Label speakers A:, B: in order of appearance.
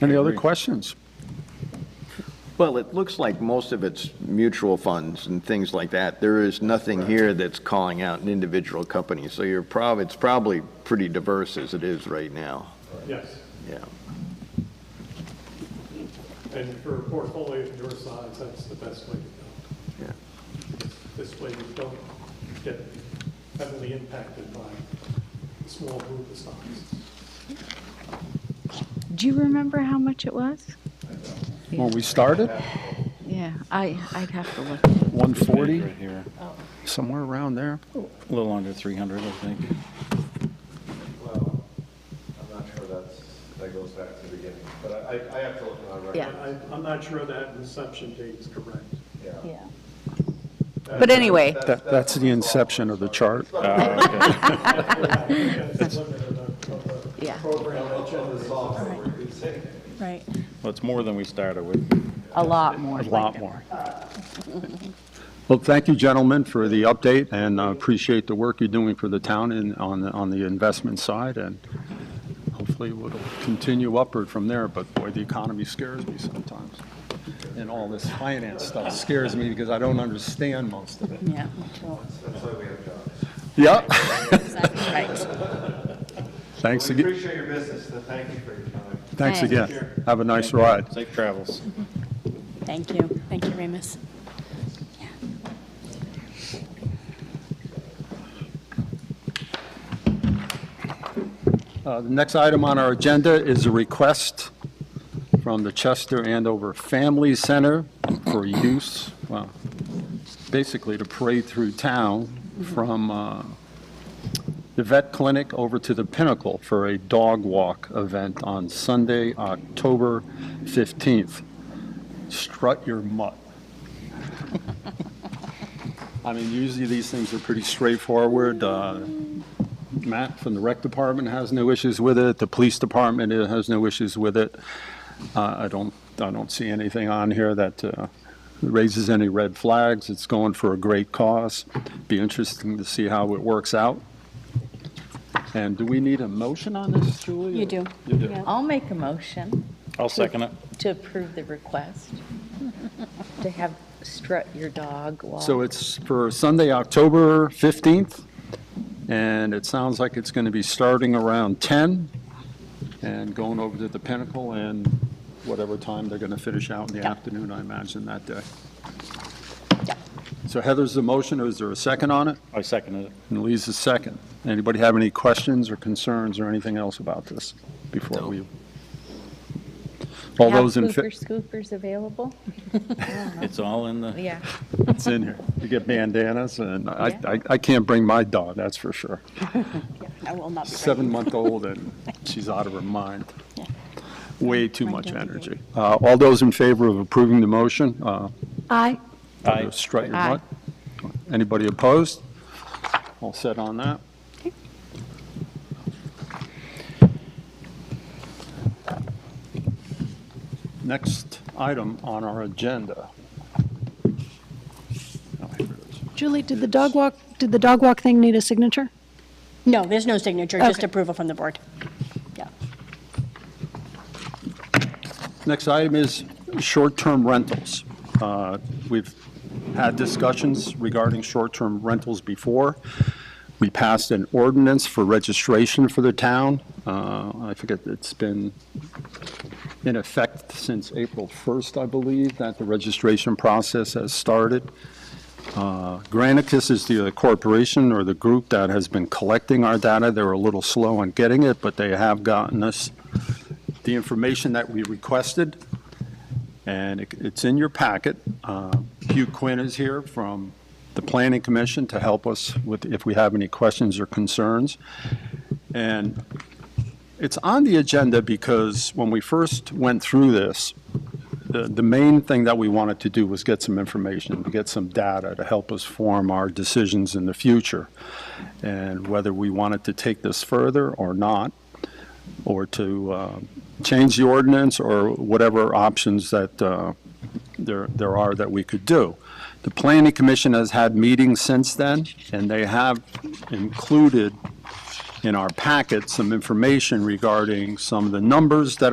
A: Any other questions?
B: Well, it looks like most of it's mutual funds and things like that. There is nothing here that's calling out an individual company, so you're prob, it's probably pretty diverse as it is right now.
C: Yes,
B: Yeah.
C: and for a portfolio of your size, that's the best way to
B: yeah.
C: go. This way you don't get heavily impacted by a small group of stocks.
D: Do you remember how much it was?
A: When we started,
D: Yeah, I, I'd have to look.
A: 140,
E: Right here,
A: somewhere around there.
E: a little under 300, I think.
F: Well, I'm not sure that's, that goes back to the beginning, but I, I- I have to look at my record.
D: Yeah.
C: I, I'm not sure that inception date is correct.
F: Yeah.
D: But anyway,
A: That, that's the inception of the chart.
C: That's limited to the-
D: yeah,
F: Program that generates-
G: Right,
E: Well, it's more than we started with.
D: a lot more.
A: A lot more. Well, thank you, gentlemen, for the update, and uh, appreciate the work you're doing for the town and on, the- on the investment side, and hopefully it'll continue upward from there, but boy, the economy scares me sometimes. And all this finance stuff scares me because I don't understand most of it.
G: yeah.
F: That's why we have jobs.
A: Yeah.
G: Right.
A: Thanks
F: We
A: again,
F: appreciate your business, so thank you for your time.
A: thanks again. Have a nice
E: Thank you.
A: ride.
E: Safe travels.
G: Thank you. Thank you, Remus.
A: Uh, The next item on our agenda is a request from the Chester Andover Family Center for use, well, basically to parade through town from uh, the vet clinic over to the Pinnacle for a dog walk event on Sunday, October 15th. Strut your mutt. I mean, usually these things are pretty straightforward. uh, Matt from the rec department has no issues with it, the police department uh, has no issues with it. Uh, I don't, I don't see anything on here that uh, raises any red flags, it's going for a great cause. Be interesting to see how it works out. And do we need a motion on this, Julie?
G: You do.
A: You do.
G: Yeah.
H: I'll make a motion
E: I'll second it.
H: to approve the request to have strut your dog walk.
A: So it's for Sunday, October 15th, and it sounds like it's going to be starting around 10 and going over to the Pinnacle and whatever time they're going to finish out in the
G: Yeah.
A: afternoon, I imagine, that day.
G: Yeah.
A: So Heather's the motion, is there a second on it?
E: I seconded it.
A: And Lee's the second. Anybody have any questions or concerns or anything else about this before we? All
H: Have
A: those in, fa-
H: Hooper scoopers available?
E: It's all in the,
H: Yeah.
A: it's in here. You get bandanas, and I,
H: Yeah.
A: I I can't bring my dog, that's for sure.
G: I will not be.
A: seven-month-old and she's out of her mind.
G: Yeah.
A: Way too
G: My
A: much
G: dog is
A: energy. Uh, All those in favor of approving the motion, uh,
D: I,
E: Aye.
A: strut your
H: Aye.
A: butt. Anybody opposed? All set on that? Next item on our agenda. Oh, here it is.
I: Julie, did the dog walk, did the dog walk thing need a signature?
G: No, there's no signature, just
I: Okay.
G: approval from the board. Yeah.
A: Next item is short-term rentals. Uh, We've had discussions regarding short-term rentals before. We passed an ordinance for registration for the town. Uh, I forget, it's been in effect since April 1st, I believe, that the registration process has started. Uh, Granicus is the corporation or the group that has been collecting our data. They were a little slow on getting it, but they have gotten us the information that we requested, and it- it's in your packet. Uh, Hugh Quinn is here from the Planning Commission to help us with, if we have any questions or concerns. And it's on the agenda because when we first went through this, the, the main thing that we wanted to do was get some information, to get some data to help us form our decisions in the future, and whether we wanted to take this further or not or to uh, change the ordinance, or whatever options that uh, there there are that we could do. The Planning Commission has had meetings since then, and they have included in our packet some information regarding some of the numbers that are.